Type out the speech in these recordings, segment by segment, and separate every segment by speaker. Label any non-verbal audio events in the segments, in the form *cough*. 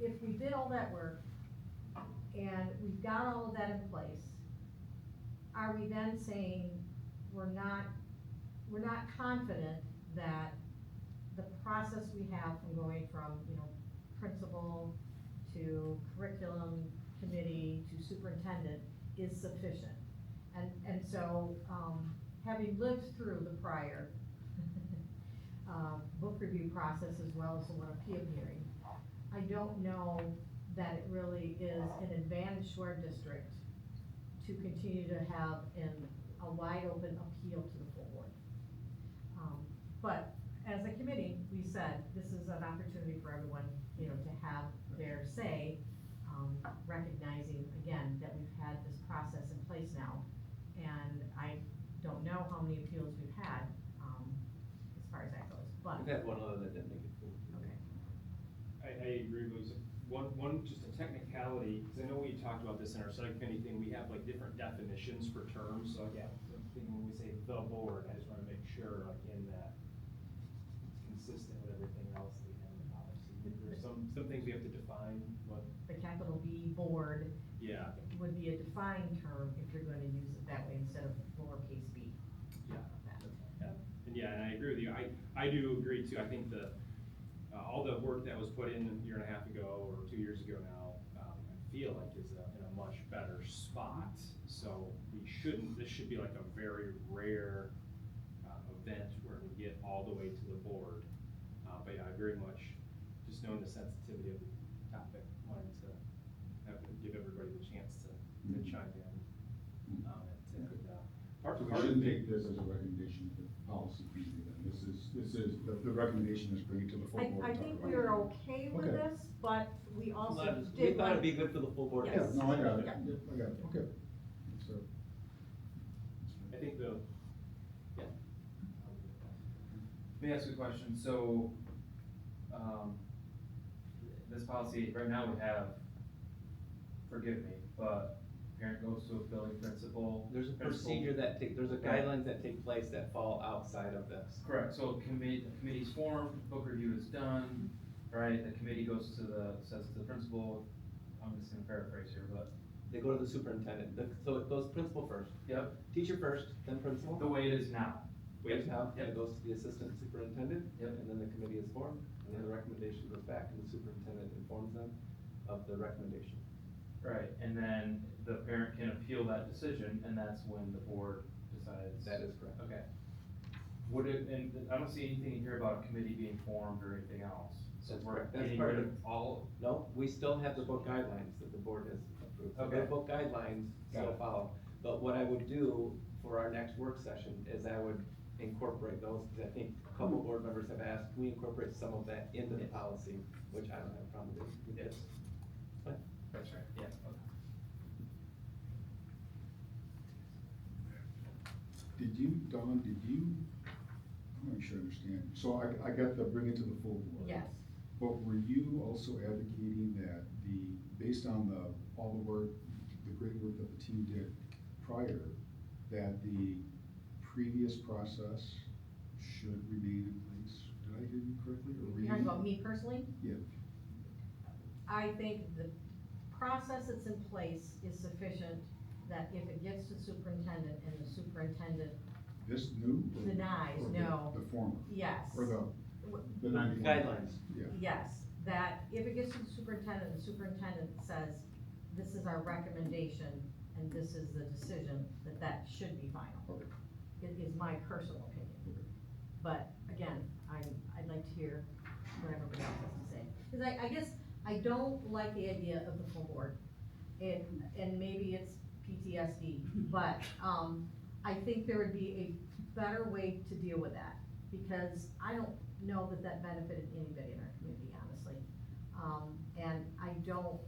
Speaker 1: if we did all that work and we've got all of that in place, are we then saying we're not, we're not confident that the process we have from going from, you know, principal to curriculum committee to superintendent is sufficient? And, and so, um, having lived through the prior, *laughs* um, book review process as well as the one appeal hearing, I don't know that it really is an advantage to our district to continue to have an, a wide open appeal to the full board. Um, But as a committee, we said, this is an opportunity for everyone, you know, to have their say, um, recognizing again that we've had this process in place now. And I don't know how many appeals we've had, um, as far as that goes, but,
Speaker 2: We've had one other that didn't make it through.
Speaker 1: okay.
Speaker 3: I, I agree, with was one, one, just a technicality, because I know we talked about this in our subcommittee thing, we have like different definitions for terms, so yeah, I'm thinking when we say the board, I just want to make sure, like, in that, it's consistent with everything else that we have in the policy. There's some, some things we have to define, but,
Speaker 1: The capital B board
Speaker 3: yeah,
Speaker 1: would be a defined term if you're gonna use it that way instead of lowercase b.
Speaker 3: yeah.
Speaker 1: That.
Speaker 3: And yeah, and I agree with you. I, I do agree too. I think the, uh, all the work that was put in a year and a half ago or two years ago now, um, I feel like is uh, in a much better spot. So we shouldn't, this should be like a very rare, uh, event where we get all the way to the board. Uh, but yeah, I very much, just knowing the sensitivity of the topic, wanted to have, give everybody the chance to, to chime in. Um, and, uh, part,
Speaker 4: We
Speaker 3: part of
Speaker 4: shouldn't
Speaker 3: me,
Speaker 4: take this as a recommendation to the policy committee, then, this is, this is, the, the recommendation is bring it to the full board.
Speaker 1: I, I
Speaker 4: to talk
Speaker 1: think
Speaker 4: about.
Speaker 1: we are okay with
Speaker 4: Okay.
Speaker 1: this, but we
Speaker 2: But
Speaker 1: also
Speaker 2: We
Speaker 1: did
Speaker 2: thought
Speaker 1: want,
Speaker 2: it'd be good for the full board. to
Speaker 4: Yeah,
Speaker 1: Yes.
Speaker 4: no, I got it,
Speaker 1: Yeah.
Speaker 4: Yeah, I got it, okay. So.
Speaker 3: I think the,
Speaker 5: Let me ask you a question, so, um, this policy, right now we have, forgive me, but parent goes to a building principal.
Speaker 2: There's a
Speaker 5: Principal.
Speaker 2: procedure that take, there's a guidelines that take place that fall outside of this.
Speaker 5: Correct, so committee, committee's formed, book review is done, right, the committee goes to the, says to the principal, I'm just gonna paraphrase here, but,
Speaker 2: They go to the superintendent, The- so it goes principal first,
Speaker 5: yep,
Speaker 2: teacher first, then principal.
Speaker 5: the way it is now.
Speaker 2: Waves out, and
Speaker 5: Yep.
Speaker 2: it goes to the assistant superintendent.
Speaker 5: Yep.
Speaker 2: And then the committee is formed, and then the recommendation goes back, and the superintendent informs them of the recommendation.
Speaker 5: Right, and then the parent can appeal that decision, and that's when the board decides.
Speaker 2: That is correct.
Speaker 5: Okay. Would it, and I don't see anything in here about a committee being formed or anything else. So
Speaker 2: That's
Speaker 5: we're
Speaker 2: correct. That's
Speaker 5: getting
Speaker 2: part
Speaker 5: rid
Speaker 2: of-
Speaker 5: of all,
Speaker 2: No, we still have the book guidelines that the board has approved. So The
Speaker 5: Okay.
Speaker 2: book guidelines
Speaker 5: Got
Speaker 2: still
Speaker 5: it.
Speaker 2: follow. But what I would do for our next work session is I would incorporate those, because I think a
Speaker 5: Hmm.
Speaker 2: couple board members have asked, can we incorporate some of that into the policy, which I don't have a problem with.
Speaker 5: Yes. that's right, yeah, okay.
Speaker 4: Did you, Don, did you, I'm not sure I understand, so I, I got the bring it to the full board.
Speaker 1: yes,
Speaker 4: But were you also advocating that the, based on the, all the work, the great work that the team did prior, that the previous process should remain in place? Did I hear you correctly, or were
Speaker 1: you're talking
Speaker 4: you?
Speaker 1: about me personally?
Speaker 4: Yeah.
Speaker 1: I think the process that's in place is sufficient, that if it gets to superintendent and the superintendent
Speaker 4: This new? or-
Speaker 1: Denies,
Speaker 4: or the-
Speaker 1: no.
Speaker 4: The former,
Speaker 1: Yes.
Speaker 4: or the. the- the-
Speaker 2: Guidelines.
Speaker 4: Yeah,
Speaker 1: Yes, that if it gets to the superintendent, the superintendent says, this is our recommendation and this is the decision, that that should be final.
Speaker 4: Okay.
Speaker 1: It is my personal opinion.
Speaker 4: Okay.
Speaker 1: But again, I, I'd like to hear what everybody else has to say. Cause I, I guess I don't like the idea of the full board. It, and maybe it's
Speaker 4: *laughs*
Speaker 1: PTSD, but, um, I think there would be a better way to deal with that. Because I don't know that that benefited anybody in our community, honestly. Um, and I don't,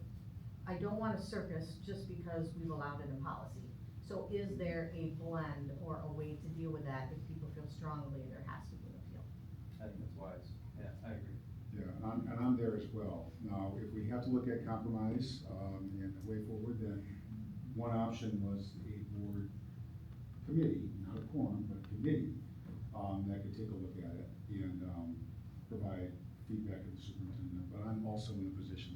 Speaker 1: I don't want a circus just because we've allowed it in policy. So is there a blend or a way to deal with that if people feel strongly there has to be an appeal?
Speaker 5: I think that's wise, yeah, I agree.
Speaker 4: yeah, and I'm, and I'm there as well. Now, if we have to look at compromise, um, and the way forward, then one option was a board committee, not a quorum, but a committee, um, that could take a look at it and, um, provide feedback to the superintendent. But I'm also in a position